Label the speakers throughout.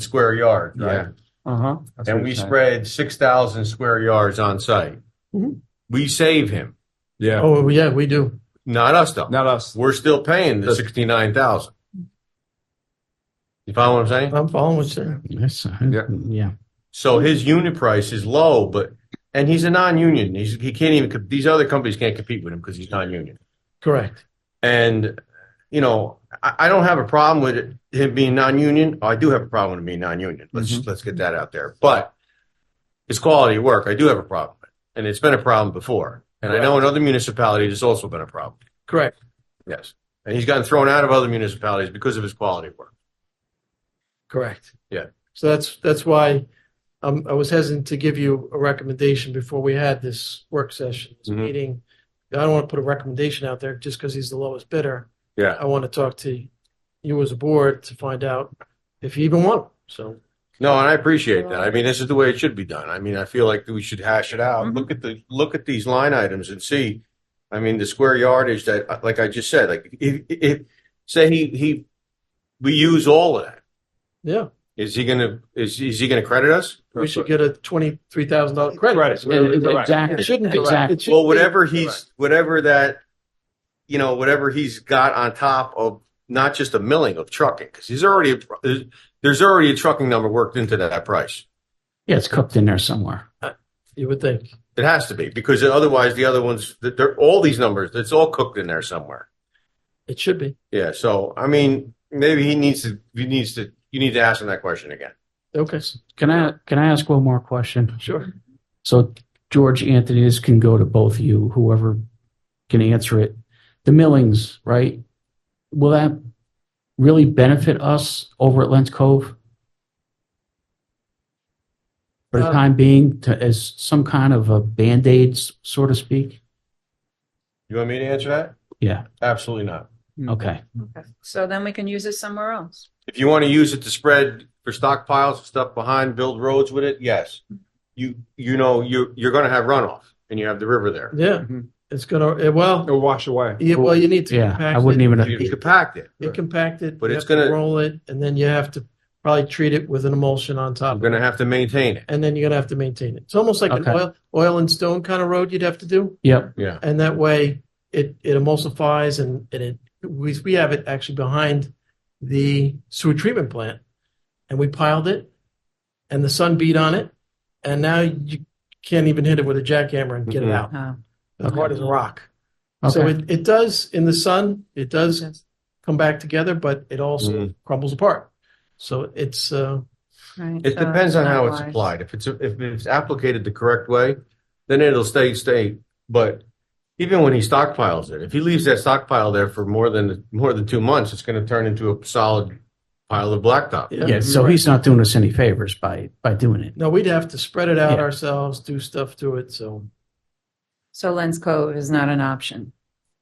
Speaker 1: square yards, right?
Speaker 2: Uh-huh.
Speaker 1: And we spread six thousand square yards on site.
Speaker 2: Mhm.
Speaker 1: We save him,
Speaker 3: Yeah,
Speaker 2: Oh, yeah, we do.
Speaker 1: not us though.
Speaker 3: not us.
Speaker 1: We're still paying the
Speaker 3: That's-
Speaker 1: sixty-nine thousand. You follow what I'm saying?
Speaker 2: I'm following what you
Speaker 4: Yes, I-
Speaker 3: Yeah.
Speaker 4: yeah.
Speaker 1: So his unit price is low, but, and he's a non-union. He's, he can't even, co- these other companies can't compete with him because he's non-union.
Speaker 2: Correct.
Speaker 1: And, you know, I, I don't have a problem with it, him being non-union. Oh, I do have a problem with him being non-union. Let's, let's get that out there. But it's quality of work. I do have a problem with. And it's been a problem before. And I know in other municipalities, it's also been a problem.
Speaker 2: Correct.
Speaker 1: Yes. And he's gotten thrown out of other municipalities because of his quality of work.
Speaker 2: Correct.
Speaker 1: Yeah.
Speaker 2: So that's, that's why um, I was hesitant to give you a recommendation before we had this work session, this
Speaker 1: Mhm.
Speaker 2: meeting. I don't want to put a recommendation out there just because he's the lowest bidder.
Speaker 1: Yeah.
Speaker 2: I want to talk to you as a board to find out if you even want. him. So
Speaker 1: No, and I appreciate that. I mean, this is the way it should be done. I mean, I feel like we should hash it out.
Speaker 3: Mhm.
Speaker 1: Look at the, look at these line items and see. I mean, the square yardage that, uh, like I just said, like if, if, say he, he, we use all of that.
Speaker 2: yeah,
Speaker 1: Is he gonna, is, is he gonna credit us?
Speaker 2: we should get a twenty-three thousand dollar credit.
Speaker 4: It- it-
Speaker 2: It
Speaker 4: Exactly,
Speaker 2: shouldn't be.
Speaker 4: exactly.
Speaker 2: It should
Speaker 1: Well,
Speaker 2: be-
Speaker 1: whatever he's, whatever that, you know, whatever he's got on top of not just a milling of trucking, because he's already, there's already a trucking number worked into that price.
Speaker 4: Yeah, it's cooked in there somewhere.
Speaker 2: You would think.
Speaker 1: It has to be because otherwise the other ones, th- they're all these numbers. It's all cooked in there somewhere.
Speaker 2: It should be.
Speaker 1: Yeah. So I mean, maybe he needs to. He needs to. You need to ask him that question again.
Speaker 2: Okay,
Speaker 4: Can I, can I ask one more question?
Speaker 2: sure.
Speaker 4: So George Anthony, this can go to both of you, whoever can answer it. The millings, right? Will that really benefit us over at Lens Cove? For the
Speaker 2: Uh,
Speaker 4: time being, to, as some kind of a Band-Aid, s- so to speak?
Speaker 1: You want me to answer that?
Speaker 4: Yeah,
Speaker 1: Absolutely not.
Speaker 4: okay.
Speaker 5: Okay. So then we can use it somewhere else.
Speaker 1: If you want to use it to spread for stockpiles and stuff behind, build roads with it, yes. You you know you you're going to have runoff and you have the river there.
Speaker 2: Yeah, it's gonna, eh, well,
Speaker 3: It'll wash away.
Speaker 2: yeah, well, you need to.
Speaker 4: Yeah,
Speaker 2: compact
Speaker 4: I wouldn't
Speaker 2: it.
Speaker 4: even,
Speaker 1: You could compact it.
Speaker 2: You compact it,
Speaker 1: But
Speaker 2: you
Speaker 1: it's
Speaker 2: have to
Speaker 1: gonna-
Speaker 2: roll it, and then you have to probably treat it with an emulsion on top.
Speaker 1: I'm
Speaker 2: of
Speaker 1: going
Speaker 2: it,
Speaker 1: to have to maintain it.
Speaker 2: And then you're gonna have to maintain it. It's almost like an
Speaker 4: Okay.
Speaker 2: oil, oil and stone kind of road you'd have to do.
Speaker 4: yep,
Speaker 1: Yeah.
Speaker 2: And that way it, it emulsifies and, and it, we, we have it actually behind the sewer treatment plant. And we piled it and the sun beat on it. And now you can't even hit it with a jackhammer and get it
Speaker 1: Mhm.
Speaker 2: out.
Speaker 5: Uh,
Speaker 2: It's hard as a rock. So
Speaker 4: okay,
Speaker 2: it, it does in the sun, it does
Speaker 5: yes.
Speaker 2: come back together, but it also crumbles apart. So it's, uh,
Speaker 5: Right.
Speaker 1: It
Speaker 5: So
Speaker 1: depends on how it's
Speaker 5: not wise.
Speaker 1: applied. If it's, if it's applicated the correct way, then it'll stay, stay. But even when he stockpiles it, if he leaves that stockpile there for more than, more than two months, it's gonna turn into a solid pile of blacktop.
Speaker 2: yeah.
Speaker 4: yeah, so he's not doing us any favors by, by doing it.
Speaker 2: No, we'd have to spread it out
Speaker 4: Yeah.
Speaker 2: ourselves, do stuff to it. So
Speaker 5: So Lens Cove is not an option.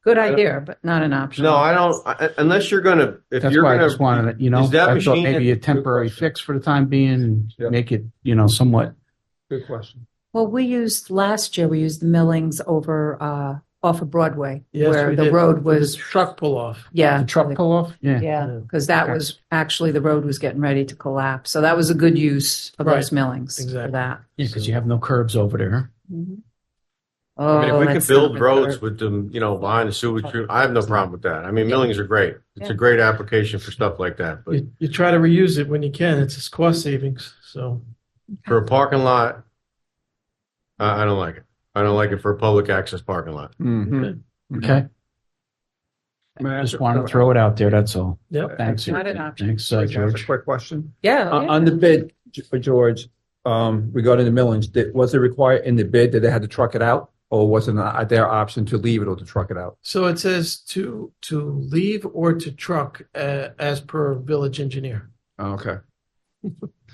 Speaker 5: Good idea, but not an option.
Speaker 1: No, I don't, I- unless you're gonna, if
Speaker 4: That's
Speaker 1: you're
Speaker 4: why I just
Speaker 1: gonna,
Speaker 4: wanted, it, you know,
Speaker 1: is that
Speaker 4: I thought
Speaker 1: machine-
Speaker 4: maybe a
Speaker 1: Good
Speaker 4: temporary
Speaker 1: question.
Speaker 4: fix for the time being, and
Speaker 3: Yep.
Speaker 4: make it, you know, somewhat,
Speaker 3: Good question.
Speaker 5: Well, we used, last year, we used the millings over, uh, off of Broadway.
Speaker 2: yes,
Speaker 5: Where
Speaker 2: we
Speaker 5: the
Speaker 2: did.
Speaker 5: road
Speaker 2: With the
Speaker 5: was,
Speaker 2: truck pull off.
Speaker 5: yeah.
Speaker 4: the truck pull off, yeah.
Speaker 5: Yeah, because that
Speaker 4: Okay.
Speaker 5: was, actually, the road was getting ready to collapse. So that was a good use of
Speaker 2: Right.
Speaker 5: those millings for
Speaker 2: Exactly.
Speaker 5: that.
Speaker 4: Yeah, because you have no curbs over there.
Speaker 1: I mean,
Speaker 5: Oh,
Speaker 1: if we could
Speaker 5: that's
Speaker 1: build
Speaker 5: not
Speaker 1: roads
Speaker 5: good.
Speaker 1: with them, you know, behind the sewage, treatment, I have no problem with that. I mean, millings are great. It's a
Speaker 5: Yeah.
Speaker 1: great application for stuff like that, but
Speaker 2: You, you try to reuse it when you can. It's just cost savings. So
Speaker 1: for a parking lot, I, I don't like it. I don't like it for a public access parking lot.
Speaker 4: Mm-hmm. Okay, just want to throw it out there. That's all.
Speaker 2: Yep.
Speaker 4: Thanks.
Speaker 5: Not an option.
Speaker 4: Thanks, uh, George.
Speaker 3: Quick question.
Speaker 5: Yeah.
Speaker 3: On
Speaker 5: yeah.
Speaker 3: Uh, on the bid, G- for George, um, regarding the millings, did- was it required in the bid that they had to truck it out? Or was it not their option to leave it or to truck it out?
Speaker 2: So it says to to leave or to truck uh, as per village engineer.
Speaker 3: Okay.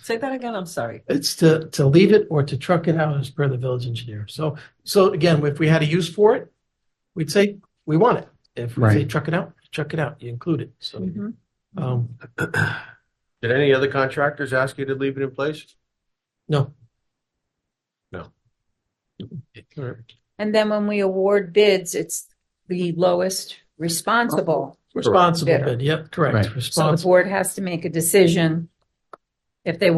Speaker 6: Say that again, I'm sorry.
Speaker 2: It's to to leave it or to truck it out as per the village engineer. So so again, if we had a use for it, we'd say we want it. If we say
Speaker 4: Right.
Speaker 2: truck it out, truck it out. You include it. So
Speaker 1: Mm-hmm.
Speaker 5: Mhm.
Speaker 2: um,
Speaker 1: Did any other contractors ask you to leave it in place?
Speaker 2: no.
Speaker 1: No.
Speaker 2: All right.
Speaker 5: And then when we award bids, it's the lowest responsible.
Speaker 2: Responsible
Speaker 5: Better.
Speaker 2: bid. Yep,
Speaker 4: Right.
Speaker 2: correct.
Speaker 4: So the
Speaker 5: So the
Speaker 2: Responsible.
Speaker 5: board has to make a decision if they